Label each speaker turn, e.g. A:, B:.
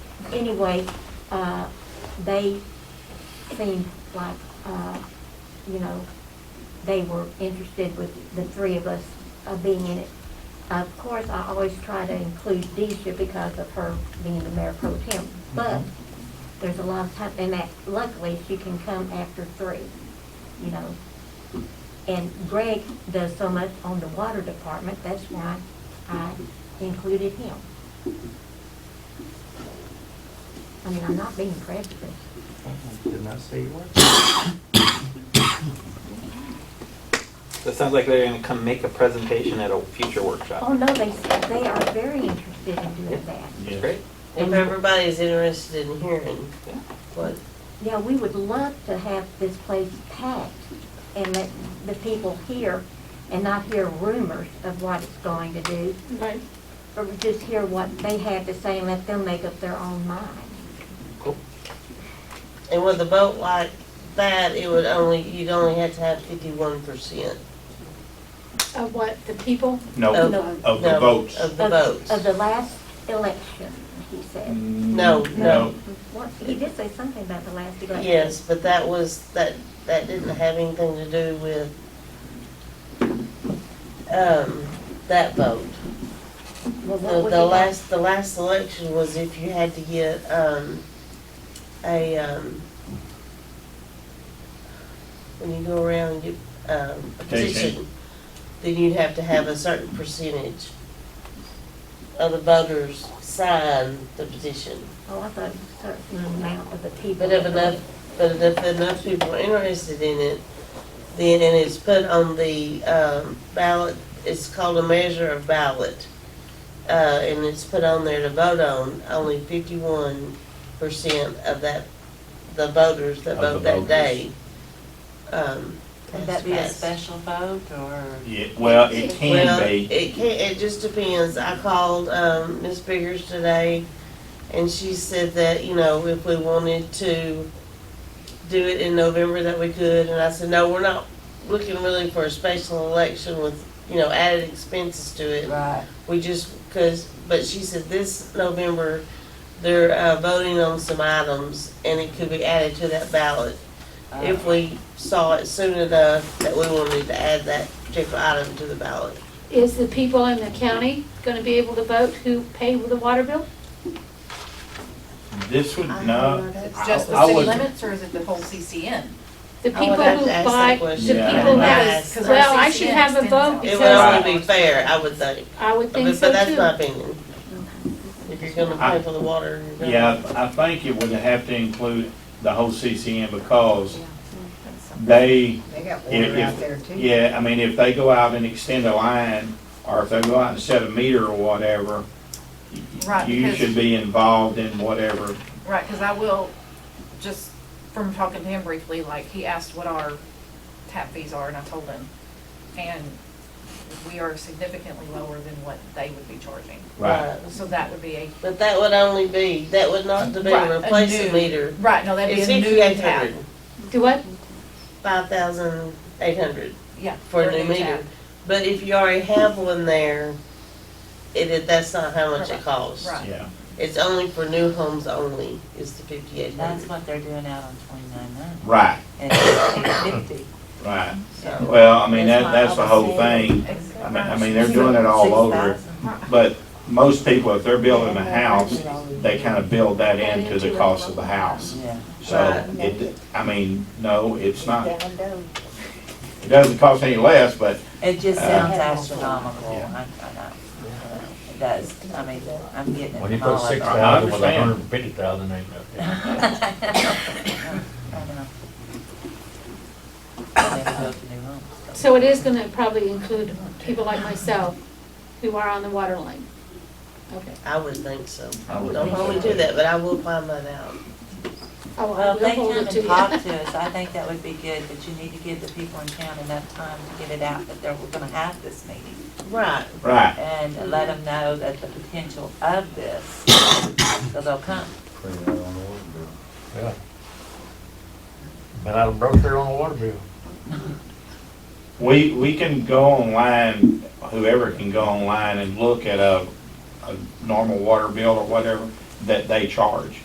A: anyway, uh, they seemed like, uh, you know, they were interested with the three of us uh, being in it. Of course, I always try to include Deisha because of her being the mayor pro tem, but there's a lot of time, and that luckily she can come after three, you know. And Greg does so much on the water department, that's why I included him. I mean, I'm not being prejudiced.
B: Did not say you were. That sounds like they're gonna come make a presentation at a future
A: Oh,
B: workshop.
A: no, they, said they are very interested in doing that.
B: That's great.
C: If everybody's interested in hearing what,
A: Yeah, we would love to have this place packed and let the people hear and not hear rumors of what it's going to do.
D: Right.
A: Or just hear what they have to say and let them make up their own mind.
B: Cool.
C: and with a vote like that, it would only, you'd only have to have fifty-one percent.
D: Of what, the people?
E: No, of the votes.
C: Of the
A: Of-
C: votes.
A: Of the last election, he said.
C: No, no,
A: What- He did say something about the last election.
C: yes, but that was, that, that didn't have anything to do with, um, that vote.
A: Well, what
C: The,
A: would
C: the
A: he-
C: last, the last election was if you had to get, um, a, um, when you go around and get, um, a
E: Petition.
C: petition, then you'd have to have a certain percentage of the voters sign the petition.
A: Oh, I thought it was a certain
C: Mm-hmm.
A: amount of the people.
C: But if enough, but if enough people are interested in it, then, and it's put on the, um, ballot, it's called a measure of ballot. Uh, and it's put on there to vote on, only fifty-one percent of that, the voters that
E: Of the
C: vote that
E: voters.
C: day. um,
F: Would
C: has
F: that be a
C: passed.
F: special vote or?
E: Yeah, well,
C: Well,
E: it can be.
C: It can, it just depends. I called, um, Ms. Biggers today and she said that, you know, if we wanted to do it in November that we could. And I said, no, we're not looking really for a special election with, you know, added expenses to it.
F: Right.
C: We just, cause, but she said this November, they're, uh, voting on some items and it could be added to that ballot if we saw it soon enough that we wanted to add that particular item to the ballot.
D: Is the people in the county gonna be able to vote who pay with the water bill?
E: This would,
C: I
E: no.
C: don't know.
E: I-
G: It's just
E: I
G: the city
E: would-
G: limits or is it the whole CCN?
D: The
C: I
D: people
C: would have
D: who
C: to ask that
D: buy, the
C: question.
E: Yeah.
D: people
C: Yeah.
D: who,
C: Yes.
G: Because our
D: well, I should
G: CCN
D: have a
G: extends out.
D: vote
C: It
D: because
C: would only be fair, I would think.
D: I would think
C: But
D: so
C: but that's my
D: too.
C: opinion. If you're gonna pay for the water, you're gonna.
E: Yeah, I I think it would have to include the whole CCN because they,
H: They got
E: If-
H: water
E: if-
H: out there too.
E: yeah, I mean, if they go out and extend a line, or if they go out and set a meter or whatever, y-
G: Right,
E: you
G: because-
E: should be involved in whatever.
G: Right, because I will, just from talking to him briefly, like, he asked what our tap fees are, and I told him. And we are significantly lower than what they would be charging.
E: Right.
G: So that would be a,
C: But that would only be, that would not to be
G: Right, a
C: replace
G: new-
C: a meter.
G: right, no, that'd be
C: It's
G: a new
C: fifty-eight
G: tap.
C: hundred,
D: Do what?
C: five thousand eight hundred
G: Yeah.
C: for a new
G: tap.
C: meter. But if you already have one there, it, that's not how much it
G: Right,
C: costs.
G: right.
E: Yeah,
C: It's only for new homes only, is the fifty-eight
F: That's
C: hundred.
F: what they're doing out on twenty-nine now.
E: right,
F: And it's fifty,
E: right.
C: So,
E: Well, I mean,
F: That's
E: that,
F: why
E: that's the
F: I was
E: whole
F: saying-
E: thing.
G: Ex-
E: I mean, I mean, they're doing it all over,
F: 6,000.
E: but most people, if they're building a house, they kind of build that into the cost of the house.
F: Yeah.
E: So it, I mean, no, it's not, it doesn't cost any less, but
F: It just
E: Uh,
F: sounds astronomical.
E: Yeah.
F: I, I know. It does, I mean, I'm getting it
I: When you
F: from all
I: put six
F: over.
I: thousand with a
E: understand.
I: hundred and fifty thousand, ain't nothing.
F: I know. I never built a new home.
D: So uh, it is gonna probably include people like myself who are on the water line. Okay.
C: I would think so.
E: I would
C: Don't
E: think
C: hold me
E: so.
C: to that, but I will find that out.
D: Oh, I
F: Well, if
D: will
F: they
D: hold it
F: come
D: to
F: and
D: you.
F: talk to us, I think that would be good, but you need to give the people in town enough time to get it out that they're, we're gonna have this meeting.
C: Right.
E: Right,
F: and let them know that the potential of this, so they'll come.
I: Yeah. Been out of broke there on a water bill.
E: we, we can go online, whoever can go online and look at a, a normal water bill or whatever that they charge.